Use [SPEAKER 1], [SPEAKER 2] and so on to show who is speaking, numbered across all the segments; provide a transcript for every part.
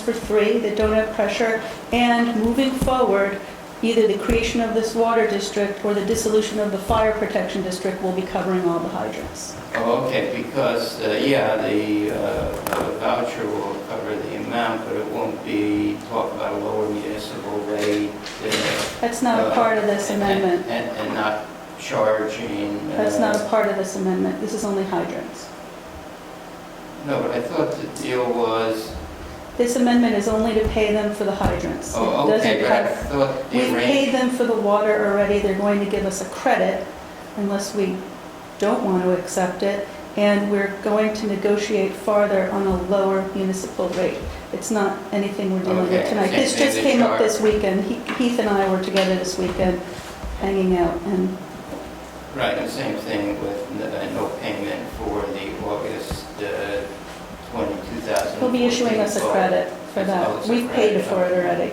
[SPEAKER 1] for three that don't have pressure, and moving forward, either the creation of this water district or the dissolution of the fire protection district will be covering all the hydrants.
[SPEAKER 2] Oh, okay, because, uh, yeah, the uh, voucher will cover the amount, but it won't be talk about a lower municipal rate. uh,
[SPEAKER 1] That's not a part of this
[SPEAKER 2] and-
[SPEAKER 1] amendment.
[SPEAKER 2] And, and not charging. uh,
[SPEAKER 1] That's not a part of this amendment. This is only hydrants.
[SPEAKER 2] No, but I thought the deal was,
[SPEAKER 1] This amendment is only to pay them for the hydrants. It
[SPEAKER 2] oh, okay,
[SPEAKER 1] doesn't
[SPEAKER 2] but I
[SPEAKER 1] cover-
[SPEAKER 2] thought
[SPEAKER 1] We
[SPEAKER 2] the
[SPEAKER 1] paid
[SPEAKER 2] arrangement.
[SPEAKER 1] them for the water already, they're going to give us a credit unless we don't want to accept it, and we're going to negotiate farther on a lower municipal rate. It's not anything we're dealing with
[SPEAKER 2] Okay,
[SPEAKER 1] tonight.
[SPEAKER 2] same
[SPEAKER 1] This
[SPEAKER 2] thing
[SPEAKER 1] just
[SPEAKER 2] they
[SPEAKER 1] came up
[SPEAKER 2] charge.
[SPEAKER 1] this weekend. He- Heath and I were together this weekend, hanging out, and
[SPEAKER 2] Right, and same thing with n- uh, no payment for the August uh, 20, 2014.
[SPEAKER 1] he'll be issuing us a
[SPEAKER 2] vote.
[SPEAKER 1] credit for
[SPEAKER 2] Oh, it's
[SPEAKER 1] that.
[SPEAKER 2] a
[SPEAKER 1] We've paid
[SPEAKER 2] credit,
[SPEAKER 1] for it
[SPEAKER 2] okay.
[SPEAKER 1] already.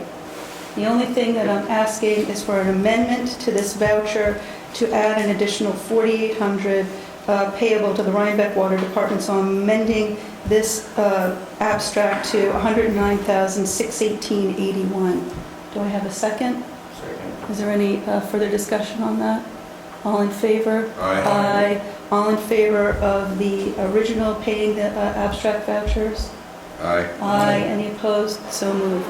[SPEAKER 1] The only thing that I'm asking is for an amendment to this voucher to add an additional 4,800 uh, payable to the Rhinebeck Water Department. So I'm amending this uh, abstract to 109,618.81. Do I have a second?
[SPEAKER 2] Second.
[SPEAKER 1] Is there any uh, further discussion on that? All in favor?
[SPEAKER 3] Aye.
[SPEAKER 1] Aye. All in favor of the original paying the uh, abstract vouchers?
[SPEAKER 3] Aye.
[SPEAKER 1] Aye. Any opposed? So moved.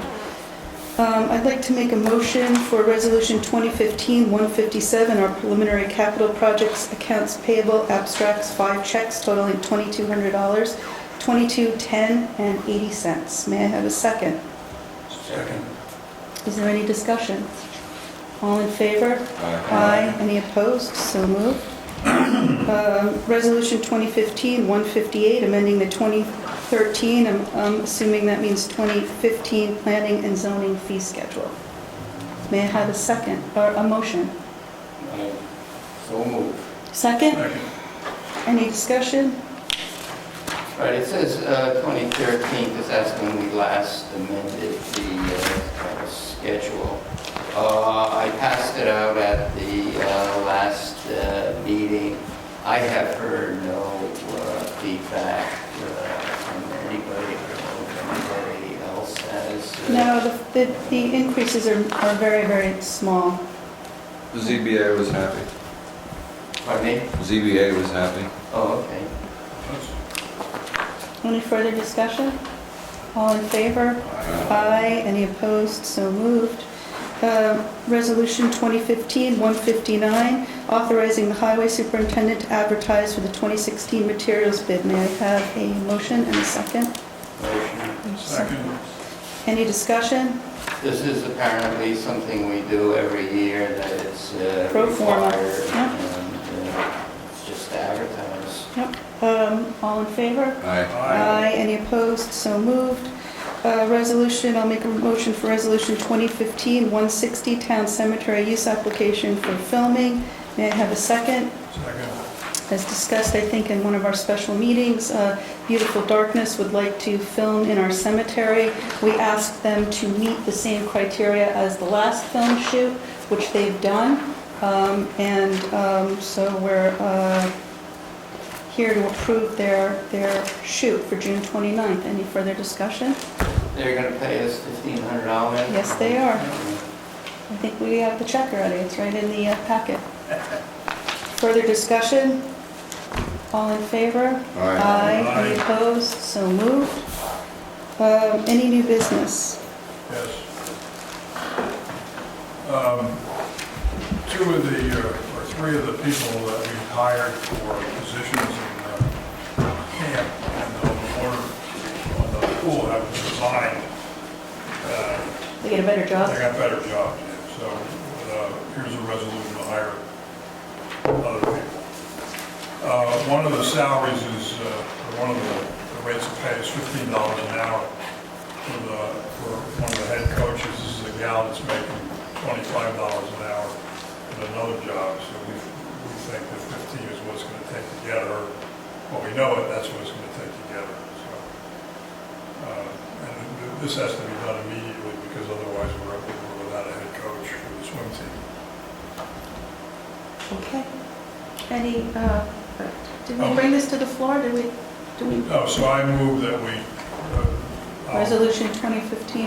[SPEAKER 1] Um, I'd like to make a motion for Resolution 2015-157, our preliminary capital projects accounts payable abstracts, five checks totaling $2,200, 2210 and 80 cents. May I have a second?
[SPEAKER 2] Second.
[SPEAKER 1] Is there any discussion? All in favor?
[SPEAKER 3] Aye.
[SPEAKER 1] Aye. Any opposed? So moved. Um, Resolution 2015-158, amending the 2013, I'm I'm um, assuming that means 2015 Planning and Zoning Fee Schedule. May I have a second, or a motion?
[SPEAKER 2] Aye. So moved.
[SPEAKER 1] Second?
[SPEAKER 3] Second.
[SPEAKER 1] Any discussion?
[SPEAKER 2] Right, it says uh, 2013, because that's when we last amended the uh, uh, schedule. Uh, I passed it out at the uh, last uh, meeting. I have heard no uh, feedback uh, from anybody, I don't know if anybody else has. uh,
[SPEAKER 1] No, the- the the increases are are very, very small.
[SPEAKER 3] The ZBA was happy.
[SPEAKER 2] Pardon me?
[SPEAKER 3] ZBA was happy.
[SPEAKER 2] Oh, okay.
[SPEAKER 1] Any further discussion? All in favor?
[SPEAKER 3] Aye.
[SPEAKER 1] Aye. Any opposed? So moved. Uh, Resolution 2015-159, authorizing the highway superintendent to advertise for the 2016 materials bid. May I have a motion and a second?
[SPEAKER 2] Motion.
[SPEAKER 1] Second. Any discussion?
[SPEAKER 2] This is apparently something we do every year, that it's uh,
[SPEAKER 1] Pro forma,
[SPEAKER 2] required,
[SPEAKER 1] yeah.
[SPEAKER 2] and uh, it's just advertised.
[SPEAKER 1] Um, All in favor?
[SPEAKER 3] Aye.
[SPEAKER 1] Aye. Any opposed? So moved. Uh, Resolution, I'll make a motion for Resolution 2015-160, town cemetery use application for filming. May I have a second? As discussed, I think, in one of our special meetings, uh, Beautiful Darkness would like to film in our cemetery. We asked them to meet the same criteria as the last film shoot, which they've done. Um, And um, so we're uh, here to approve their, their shoot for June 29th. Any further discussion?
[SPEAKER 2] They're going to pay us $1,500?
[SPEAKER 1] Yes, they are. I think we have the check already, it's right in the uh, packet. Further discussion? All in favor?
[SPEAKER 3] Aye.
[SPEAKER 1] Any opposed? So moved. Um, Any new business?
[SPEAKER 4] Yes. Um, Two of the, uh, or three of the people that we hired for positions in uh, camp and on the water, on the pool have resigned. Uh,
[SPEAKER 1] They get a better
[SPEAKER 4] They
[SPEAKER 1] job?
[SPEAKER 4] got better jobs, yeah. so uh, here's a resolution to hire other people. Uh, One of the salaries is, uh, or one of the the rates of pay is fifteen dollars an hour for the, for one of the head coaches. This is a gal that's making twenty-five dollars an hour at another job, so we, we think that fifteen is what it's gonna take to get her. Well, we know it, that's what it's gonna take to get her, so. Uh, And th- this has to be done immediately, because otherwise we're we're without a head coach for the swim team.
[SPEAKER 1] Okay. Any, uh, did we bring this to the floor? Did we, do we,
[SPEAKER 4] Oh, so I move that we, uh, Um,
[SPEAKER 1] Resolution 2015